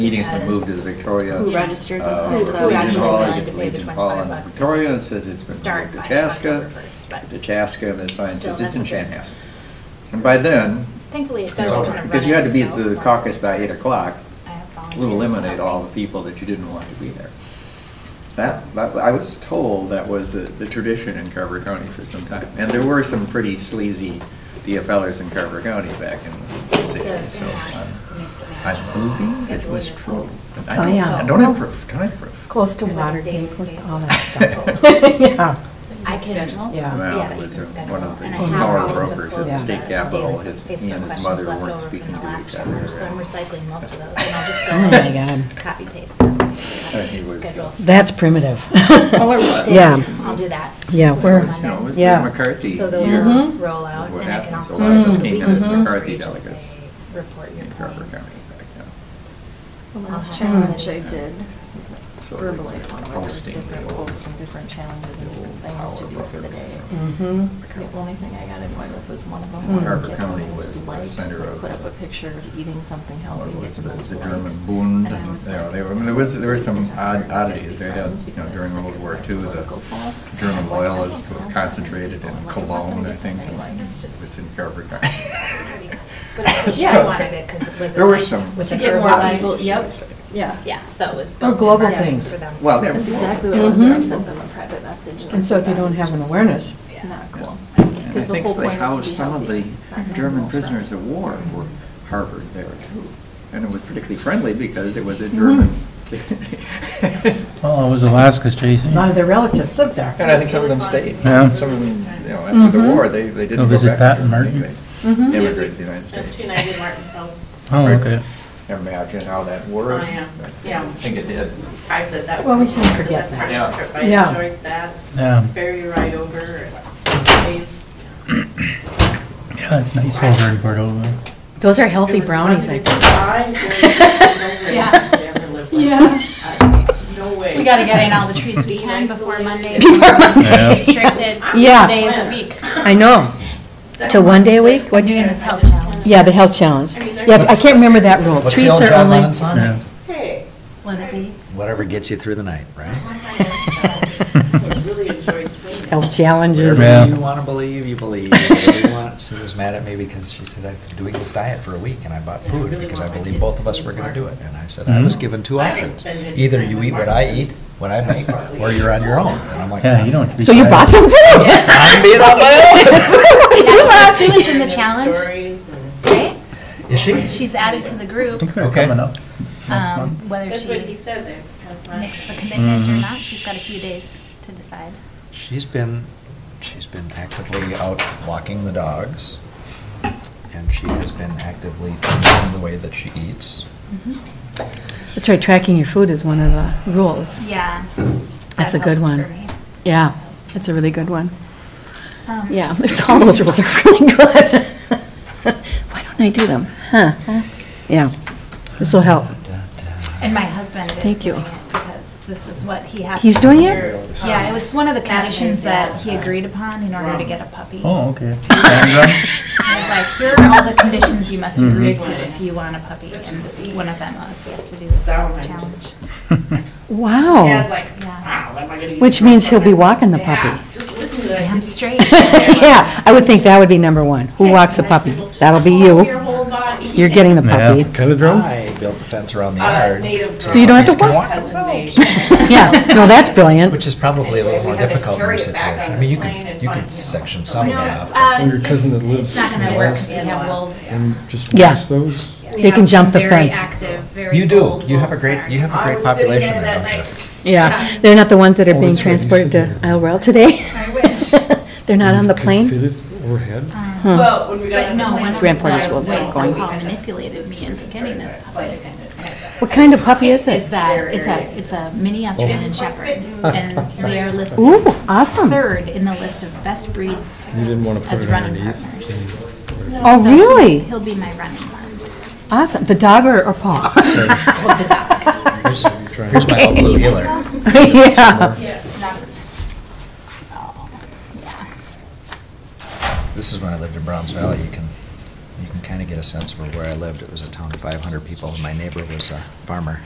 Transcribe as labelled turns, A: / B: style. A: meeting's been moved to the Victoria.
B: Who registers and
A: uh,
B: signs
A: Legion
B: up. Who actually
A: Hall,
B: signs
A: gets
B: to pay the
A: Legion Hall
C: 25
A: and
C: bucks.
A: Victoria and says it's been
C: Start
A: moved to
C: by
A: Chaska.
C: October first, but-
A: To Chaska and the sign
C: Still,
A: says it's
C: that's
A: in
C: a big-
A: Chanhassen. And by then,
C: Thankfully, it
D: It's
C: does kind
D: over.
C: of run
A: because you had to be at
C: itself
A: the
C: once it
A: caucus by eight
C: starts.
A: o'clock,
C: I have volunteers
A: we'll eliminate
C: helping.
A: all the people that you didn't want to be there. That, that, I was told that was the, the tradition in Carver County for some time. And there were some pretty sleazy DFLers in Carver County back in the sixties, so I'm, I'm believing it was true. And I
E: Oh,
A: don't-
E: yeah.
A: and Don't I prove, don't I prove?
E: Close to
C: There's like
E: water,
C: a daily
E: close to
C: basis.
E: all that stuff. Yeah.
C: I can.
B: Schedule?
E: Yeah.
A: Well,
C: Yeah,
A: it
C: you
A: was
C: can
A: uh,
C: schedule.
A: one of the
C: And I
E: key
C: have
E: power
C: all the
A: brokers at the
C: quotes
A: state
C: of
A: capitol.
C: daily
A: His-
C: Facebook
A: he and his
C: questions
A: mother
C: left
A: weren't
C: over from
A: speaking
C: the
A: to each
C: last
A: other,
C: year, So I'm
A: right?
C: recycling most of those, and I'll just go.
E: Oh my
C: and
E: God.
C: Copy paste. them and
A: he was
C: schedule.
E: That's primitive.
A: Well, it was.
E: Yeah.
C: I'll do that.
E: Yeah,
C: for
E: we're-
A: You
C: Monday.
A: know, it was the
E: Yeah.
A: McCarthy
C: So those
A: year.
C: will roll out,
A: What
C: and I can
A: happens,
C: also.
A: a lot
E: of us
C: send
E: came to
C: weekly
E: this
C: newsletter
A: McCarthy
C: where you just
A: delegates
C: say, Report your
A: in Carver County
C: findings.
A: back then.
B: The last
C: I'll have
B: challenge I
C: somebody-
B: did was
A: So
B: verbally,
A: the
B: one where there was
A: posting
B: different
A: deal.
B: posts and different challenges and different things to do
A: Power
B: for the
A: brokers.
B: day.
E: Mhm.
B: The only thing I got annoyed with was one of them.
E: Mm.
B: where
E: Carver
B: the kid
A: Hmm. County
B: almost
A: was the
B: likes,
A: center
B: like,
A: of
B: Put
A: the-
B: up a picture of eating something
A: What
B: healthy.
A: was
B: and
A: it, it was the
B: those
A: German
B: likes.
A: Bund,
B: And I was
A: there,
B: like,
A: there, I mean, there was, there were
B: "So
A: some
B: you can
A: odd
B: hurt
A: oddities,
B: your
A: they had,
B: friends
A: you know,
B: because
A: during World War II,
B: political
A: the
B: boss."
A: German
B: I'm like, "Oh, I
A: loyalists
B: don't
A: were
B: know.
A: concentrated in
B: Like, I'm not
A: Cologne,
B: gonna
A: I
B: get
A: think,
B: any
A: and
B: likes.
A: it was in Carver County.
C: But I wanted it 'cause it was
A: There were
C: aligned
A: some.
C: with
B: To
C: the
B: get more
C: urban-
B: libel, yep, yeah.
C: Yeah, so it was.
E: Or
C: built in
E: Oh, global
C: marketing
E: things. Mm-hmm.
C: for them.
A: Well, yeah.
B: That's exactly what it was, and I sent them a private message.
E: And so if you
B: that
E: don't
B: is
E: have an
B: just
E: awareness.
C: Yeah.
B: Not cool.
A: And I
B: 'Cause the
A: think
B: whole
A: they
B: point is to
A: housed
B: be
A: some of the
B: healthy, not to
A: German
B: have
A: prisoners of
B: walls
A: war
B: around.
A: were harbored there too. And it was particularly friendly because it was a German.
F: Well, Oh, it was Alaska's,
E: A lot of
F: Jason.
E: their relatives live there.
A: And I think some of them stayed.
F: Yeah. Mm-hmm.
A: Some of them, you know, after the war, they, they didn't
F: Go
A: go
F: visit
A: back. to
F: Pat and
A: Germany.
F: Martin. Mm-hmm.
A: They
E: Mhm.
A: Immigrated to the United
G: Of
A: States.
G: 290 Martin's House.
F: Oh, okay.
A: Imagine how that worked.
G: Oh, yeah. Yeah.
A: I think it did.
G: I said that
E: Well, we
G: was the
E: shouldn't forget
G: best part
E: that.
G: of the trip.
E: Yeah.
G: I enjoyed that.
F: Yeah,
G: Ferry ride over and waves.
F: yeah, it's nice over in Cordova.
E: Those are
G: It
E: healthy
G: was
E: brownies, I
G: Mondays
E: think.
G: and Fridays.
E: Yeah.
G: Never lived like that. I- Uh, No way.
C: We gotta get in all the treats we can before Monday.
E: Before
F: Monday.
C: Restricted to
E: Yeah.
C: two days a week.
E: I know. To one day a week?
C: We're doing this health challenge.
E: Yeah, the health challenge.
G: I mean, they're-
E: Yeah, I can't remember that rule.
D: What's the
E: Treats
D: old
E: are
D: John
E: only.
D: Lennon song?
F: Yeah.
G: Hey.
C: Wanna be?
D: Whatever gets you through the night, right?
G: I really enjoyed seeing that.
E: Health challenges.
F: Yeah.
D: Whatever you want to believe, you believe. Whatever you want. Sue was mad at me because she said, I've been doing this diet for a week and I bought food because I believed both of us were going to do it. And I said, I
F: Mm-hmm.
D: was
F: Hmm?
D: given two
G: I haven't
D: options.
G: spent any
D: Either
G: time
D: you
G: with
D: eat what I
G: Martin's.
D: eat, what I make, or you're on your own. And I'm like,
F: Yeah, you don't.
E: So you bought some food?
D: I'm being on my
C: That's what Sue is in the
G: And
C: challenge,
G: Stories and.
C: right?
D: own. Is she?
C: She's added to the
F: I
C: group,
F: think they're
D: Okay.
F: coming up.
C: um, whether
G: That's
C: she
G: what he said there. Have fun.
C: makes the commitment
E: Mm-hmm.
C: or not. She's got a few days to decide.
D: She's been, she's been actively out walking the dogs, and she has been actively changing the way that she eats.
C: Mm-hmm.
E: That's right, tracking your food is one of the rules.
C: Yeah.
E: That's
C: that
E: a good
C: helps
E: one.
C: for me.
E: Yeah, that's a really good one.
C: Um,
E: Yeah, there's- all those rules are really good. Why don't I do them? Huh? Yeah, this will help.
C: uh-huh. And my husband is
E: Thank you.
C: doing it because this is what he has.
E: He's
C: to
E: doing
C: do.
E: it?
C: Yeah, it's one of the
G: That is,
C: conditions that he
G: yeah.
C: agreed upon in order to get a puppy.
F: Oh, okay. And,
C: He's like, here are all the conditions you must
D: Mm-hmm.
F: Mhm.
C: agree to if you want a puppy, and one of them was he has to do this
G: Sound.
C: challenge.
G: Dad's
E: Wow.
G: like,
C: Yeah.
G: wow, am I gonna eat
E: Oh. Which
G: some
E: means he'll be
G: pumpkin?"
E: walking the
G: Yeah,
E: puppy.
G: Just listen to that.
C: Damn straight.
E: Yeah, I would think that would be number one. Who walks the
G: I said,
E: puppy?
G: "Well, just
E: That'll be
G: close Your
E: you.
G: whole body.
E: You're getting the puppy.
F: um, Velodrome?
D: I built the fence around the
G: Uh,
D: yard.
G: native.
E: So you don't have to
D: Puppies can
E: walk. Oh.
D: walk.
E: Yeah, no, that's brilliant.
D: Which is probably a little more
G: We have to
D: difficult in your
G: carry it back
D: situation.
G: on
D: I mean, you
G: the plane
D: could,
G: and
D: you
G: find,
D: could
G: you know,
D: section some
G: something
D: of it
G: else.
D: off.
C: Uh,
H: Your cousin that
C: It's
H: lives
C: not gonna
H: in
C: work
H: Alaska
C: because we have wolves.
H: and just
E: Yeah.
H: watch those.
C: We
E: They
C: have
E: can
C: some
E: jump the
C: very
E: fence.
C: active, very
D: You do,
C: bold
D: you have a
C: wolves
D: great,
C: that are-
D: you have a
G: I
D: great
G: was sitting
D: population
G: there
D: there,
G: that
D: don't you?
G: night.
E: Yeah, they're not the ones that are
H: Oh,
E: being
H: that's right, you said
E: transported to
H: that.
E: Isle Royale today.
C: I wish.
E: They're not on the plane.
H: Fit it overhead.
C: Um,
G: Well, when we got
C: But
G: on the
C: no,
G: plane,
C: one of the
E: Grand Portage
C: ways
E: wolves
C: that
E: aren't going.
C: Paul manipulated me into getting this puppy
E: What kind of puppy is
C: is
E: it?
C: that it's a, it's a mini
H: Oh.
C: Australian Shepherd, and they are listed
E: Ooh, awesome.
C: third in the list of best breeds
H: You didn't want to put
C: as
H: it
C: running
H: underneath.
C: partners.
E: Oh,
C: So he-
E: really?
C: He'll be my running partner.
E: Awesome. The dog or, or paw?
C: Well, the dog.
D: Here's here's my old blue healer.
E: Yeah.
C: Oh,
D: This is when I lived in Browns Valley, you can, you can kind of get a sense for where I lived. It was a town of 500 people, and my neighbor was a farmer.